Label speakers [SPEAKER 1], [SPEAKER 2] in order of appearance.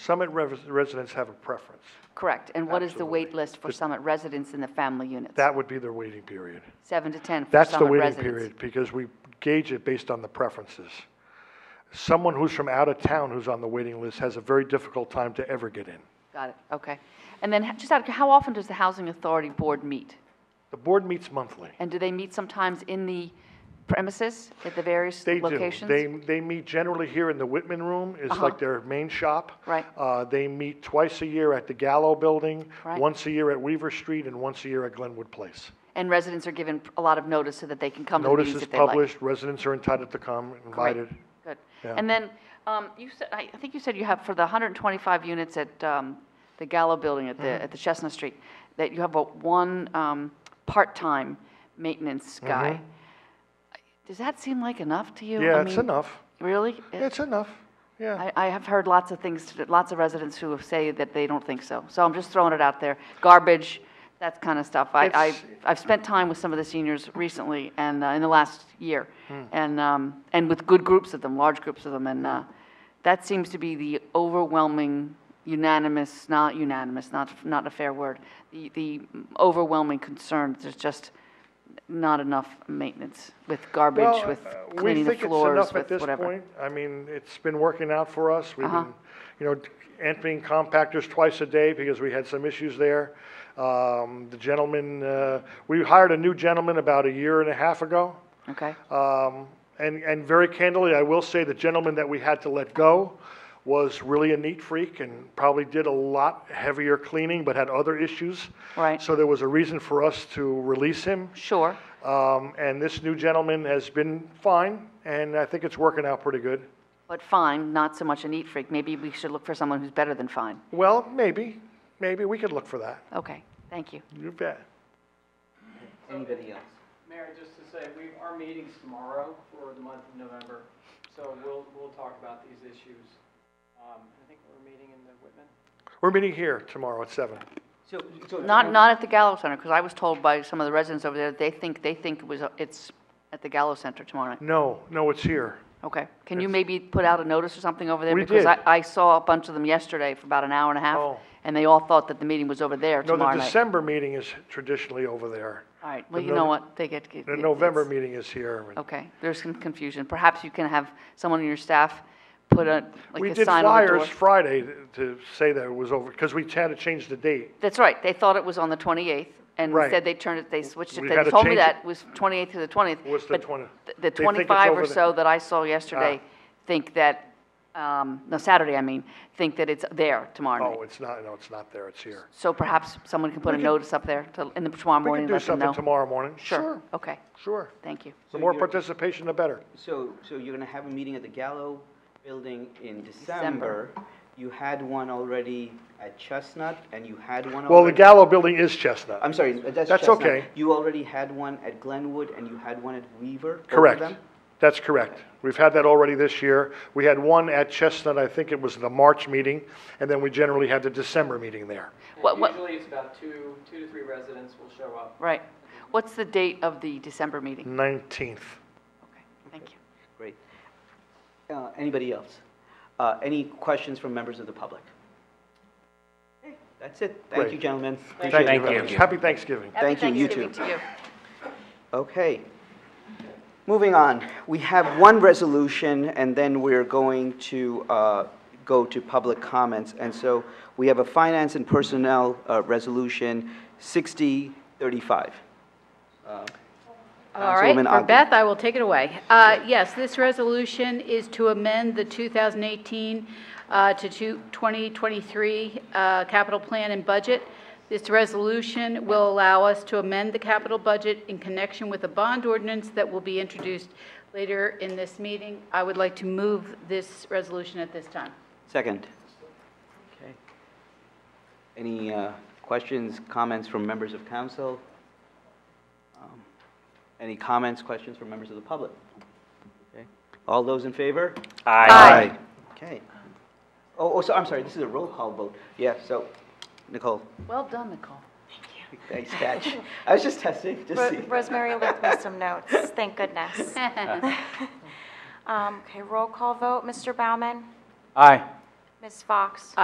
[SPEAKER 1] Summit res- residents have a preference.
[SPEAKER 2] Correct. And what is the wait
[SPEAKER 1] Absolutely.
[SPEAKER 2] list for Summit residents in the family units?
[SPEAKER 1] That would be their waiting period.
[SPEAKER 2] Seven to 10 for
[SPEAKER 1] That's the
[SPEAKER 2] Summit
[SPEAKER 1] waiting
[SPEAKER 2] residents.
[SPEAKER 1] period, because we gauge it based on the preferences. Someone who's from out of town who's on the waiting list has a very difficult time to ever get in.
[SPEAKER 2] Got it, okay. And then, h- just out of, how often does the Housing Authority Board meet?
[SPEAKER 1] The board meets monthly.
[SPEAKER 2] And do they meet sometimes in the premises at the various
[SPEAKER 1] They do.
[SPEAKER 2] locations? Uh-huh.
[SPEAKER 1] They, they meet generally here in the Whitman Room, it's like their main shop.
[SPEAKER 2] Right.
[SPEAKER 1] Uh, they meet twice a year at the Gallo Building,
[SPEAKER 2] Right.
[SPEAKER 1] once a year at Weaver Street, and once a year at Glenwood Place.
[SPEAKER 2] And residents are given a lot of notice so that they can come to the
[SPEAKER 1] Notice
[SPEAKER 2] meetings
[SPEAKER 1] is
[SPEAKER 2] if they like?
[SPEAKER 1] published, residents are entitled to come,
[SPEAKER 2] Great.
[SPEAKER 1] invited.
[SPEAKER 2] Good.
[SPEAKER 1] Yeah.
[SPEAKER 2] And then, um, you said, I I think you said you have, for the 125 units at um, the Gallo Building at
[SPEAKER 1] Mm-hmm.
[SPEAKER 2] the, at the Chestnut Street, that you have a one um, part-time maintenance guy. Does that seem like enough to you? I
[SPEAKER 1] Mm-hmm. Yeah, it's
[SPEAKER 2] mean,
[SPEAKER 1] enough.
[SPEAKER 2] Really?
[SPEAKER 1] It's enough, yeah.
[SPEAKER 2] I, I have heard lots of things, lots of residents who say that they don't think so. So I'm just throwing it out there. Garbage, that kind of stuff. I, I,
[SPEAKER 1] It's-
[SPEAKER 2] I've spent time with some of the seniors recently and, uh, in the last year.
[SPEAKER 1] Hmm.
[SPEAKER 2] And, um, and with good groups of them, large groups of them. And, uh, that seems to be the overwhelming unanimous, not unanimous, not, not a fair word. The, the overwhelming concern, there's just not enough maintenance with garbage,
[SPEAKER 1] Well,
[SPEAKER 2] with
[SPEAKER 1] uh,
[SPEAKER 2] cleaning the
[SPEAKER 1] We think
[SPEAKER 2] floors, with
[SPEAKER 1] it's enough at this
[SPEAKER 2] whatever. Uh-huh.
[SPEAKER 1] point. I mean, it's been working out for us. We've been, you know, emptying compactors twice a day because we had some issues there. Um, The gentleman, uh, we hired a new gentleman about a year and a half ago.
[SPEAKER 2] Okay?
[SPEAKER 1] Um, And, and very candidly, I will say the gentleman that we had to let go was really a neat freak and probably did a lot heavier cleaning, but had other issues.
[SPEAKER 2] Right.
[SPEAKER 1] So there was a reason for us to release him.
[SPEAKER 2] Sure.
[SPEAKER 1] Um, and this new gentleman has been fine, and I think it's working out pretty good.
[SPEAKER 2] But fine, not so much a neat freak. Maybe we should look for someone who's better than fine.
[SPEAKER 1] Well, maybe, maybe we could look for that.
[SPEAKER 2] Okay, thank you.
[SPEAKER 1] You bet.
[SPEAKER 3] Anybody else?
[SPEAKER 4] Mayor, just to say, we, our meeting's tomorrow for the month of November, so we'll, we'll talk about these issues. Um, I think we're meeting in the Whitman.
[SPEAKER 1] We're meeting here tomorrow at seven.
[SPEAKER 3] So, so.
[SPEAKER 2] Not, not at the Gallo Center, because I was told by some of the residents over there, they think, they think it was, a- it's at the Gallo Center tomorrow night.
[SPEAKER 1] No, no, it's here.
[SPEAKER 2] Okay. Can you maybe put out a notice or something over there?
[SPEAKER 1] We
[SPEAKER 2] Because I,
[SPEAKER 1] did.
[SPEAKER 2] I saw a bunch of them yesterday for about an hour and a half,
[SPEAKER 1] Oh.
[SPEAKER 2] and they all thought that the meeting was over there
[SPEAKER 1] No, the
[SPEAKER 2] tomorrow night.
[SPEAKER 1] December meeting is traditionally over there.
[SPEAKER 2] All right, well,
[SPEAKER 1] the
[SPEAKER 2] you know
[SPEAKER 1] Nov-
[SPEAKER 2] what, they get.
[SPEAKER 1] The
[SPEAKER 2] it-
[SPEAKER 1] November
[SPEAKER 2] it's-
[SPEAKER 1] meeting is here. and
[SPEAKER 2] Okay, there's some confusion. Perhaps you can have someone on your staff put a,
[SPEAKER 1] We
[SPEAKER 2] like a
[SPEAKER 1] did
[SPEAKER 2] sign on the door.
[SPEAKER 1] flyers Friday to say that it was over, because we had to change the date.
[SPEAKER 2] That's right, they thought it was on the 28th, and
[SPEAKER 1] Right.
[SPEAKER 2] said they turned it, they switched it,
[SPEAKER 1] We
[SPEAKER 2] they
[SPEAKER 1] had to
[SPEAKER 2] told me
[SPEAKER 1] change it.
[SPEAKER 2] that it was 28th to the 20th.
[SPEAKER 1] Was the
[SPEAKER 2] but
[SPEAKER 1] 20
[SPEAKER 2] th-
[SPEAKER 1] they
[SPEAKER 2] The
[SPEAKER 1] think it's
[SPEAKER 2] 25
[SPEAKER 1] over Ah.
[SPEAKER 2] or
[SPEAKER 1] the-
[SPEAKER 2] so that I saw yesterday think that, um, no, Saturday, I mean, think that it's there tomorrow
[SPEAKER 1] Oh,
[SPEAKER 2] night.
[SPEAKER 1] it's not, no, it's not there, it's here.
[SPEAKER 2] So perhaps someone can put a notice up there to- in the tomorrow
[SPEAKER 1] We
[SPEAKER 2] morning,
[SPEAKER 1] can
[SPEAKER 2] and
[SPEAKER 1] do
[SPEAKER 2] let them
[SPEAKER 1] something
[SPEAKER 2] know.
[SPEAKER 1] tomorrow morning.
[SPEAKER 2] Sure, okay,
[SPEAKER 1] Sure.
[SPEAKER 2] thank you.
[SPEAKER 1] The more
[SPEAKER 3] you're-
[SPEAKER 1] participation, the better.
[SPEAKER 3] So, so you're gonna have a meeting at the Gallo Building in
[SPEAKER 2] December.
[SPEAKER 3] December. You had one already at Chestnut, and you had one already.
[SPEAKER 1] Well, the Gallo Building is Chestnut.
[SPEAKER 3] I'm sorry, that's
[SPEAKER 1] That's
[SPEAKER 3] Chestnut.
[SPEAKER 1] okay.
[SPEAKER 3] You already had one at Glenwood, and you had one at Weaver, both of
[SPEAKER 1] Correct.
[SPEAKER 3] them?
[SPEAKER 1] That's correct. We've had that already this year. We had one at Chestnut, I think it was the March meeting, and then we generally had the December meeting there.
[SPEAKER 2] What- what-
[SPEAKER 4] Usually it's about two, two to three residents will show up.
[SPEAKER 2] Right. What's the date of the December
[SPEAKER 3] Hmm.
[SPEAKER 2] meeting?
[SPEAKER 1] 19th.
[SPEAKER 2] Okay, thank you.
[SPEAKER 3] Great. Uh, Anybody else? Uh, Any questions from members of the public? Okay, That's it. Thank
[SPEAKER 1] Great.
[SPEAKER 3] you, gentlemen.
[SPEAKER 1] Appreciate
[SPEAKER 3] Appreciate
[SPEAKER 1] it very
[SPEAKER 3] it.
[SPEAKER 1] much. Happy Thanksgiving.
[SPEAKER 2] Happy
[SPEAKER 3] Thank you, you too.
[SPEAKER 2] Thanksgiving to you.
[SPEAKER 3] Okay. Moving on, we have one resolution, and then we're going to uh, go to public comments. And so we have a Finance and Personnel uh, Resolution 6035. Uh,
[SPEAKER 5] All right,
[SPEAKER 3] Councilwoman
[SPEAKER 5] for
[SPEAKER 3] Ogden.
[SPEAKER 5] Beth, I will take it away. Uh, Yes, this resolution is to amend the 2018 uh, to two- 2023 uh, capital plan and budget. This resolution will allow us to amend the capital budget in connection with a bond ordinance that will be introduced later in this meeting. I would like to move this resolution at this time.
[SPEAKER 3] Second. Okay. Any uh, questions, comments from members of council? Um, Any comments, questions from members of the public? Okay. All those in favor?
[SPEAKER 2] Aye.
[SPEAKER 3] Okay. Oh, oh, so, I'm sorry, this is a roll call vote. Yeah, so, Nicole,
[SPEAKER 2] Well done, Nicole.
[SPEAKER 3] thanks, catch. I was just testing, just
[SPEAKER 6] Ro-
[SPEAKER 3] see.
[SPEAKER 6] Rosemary left me some notes, thank goodness. Um, Okay, roll call vote, Mr. Bauman,
[SPEAKER 3] Aye.
[SPEAKER 6] Ms. Fox.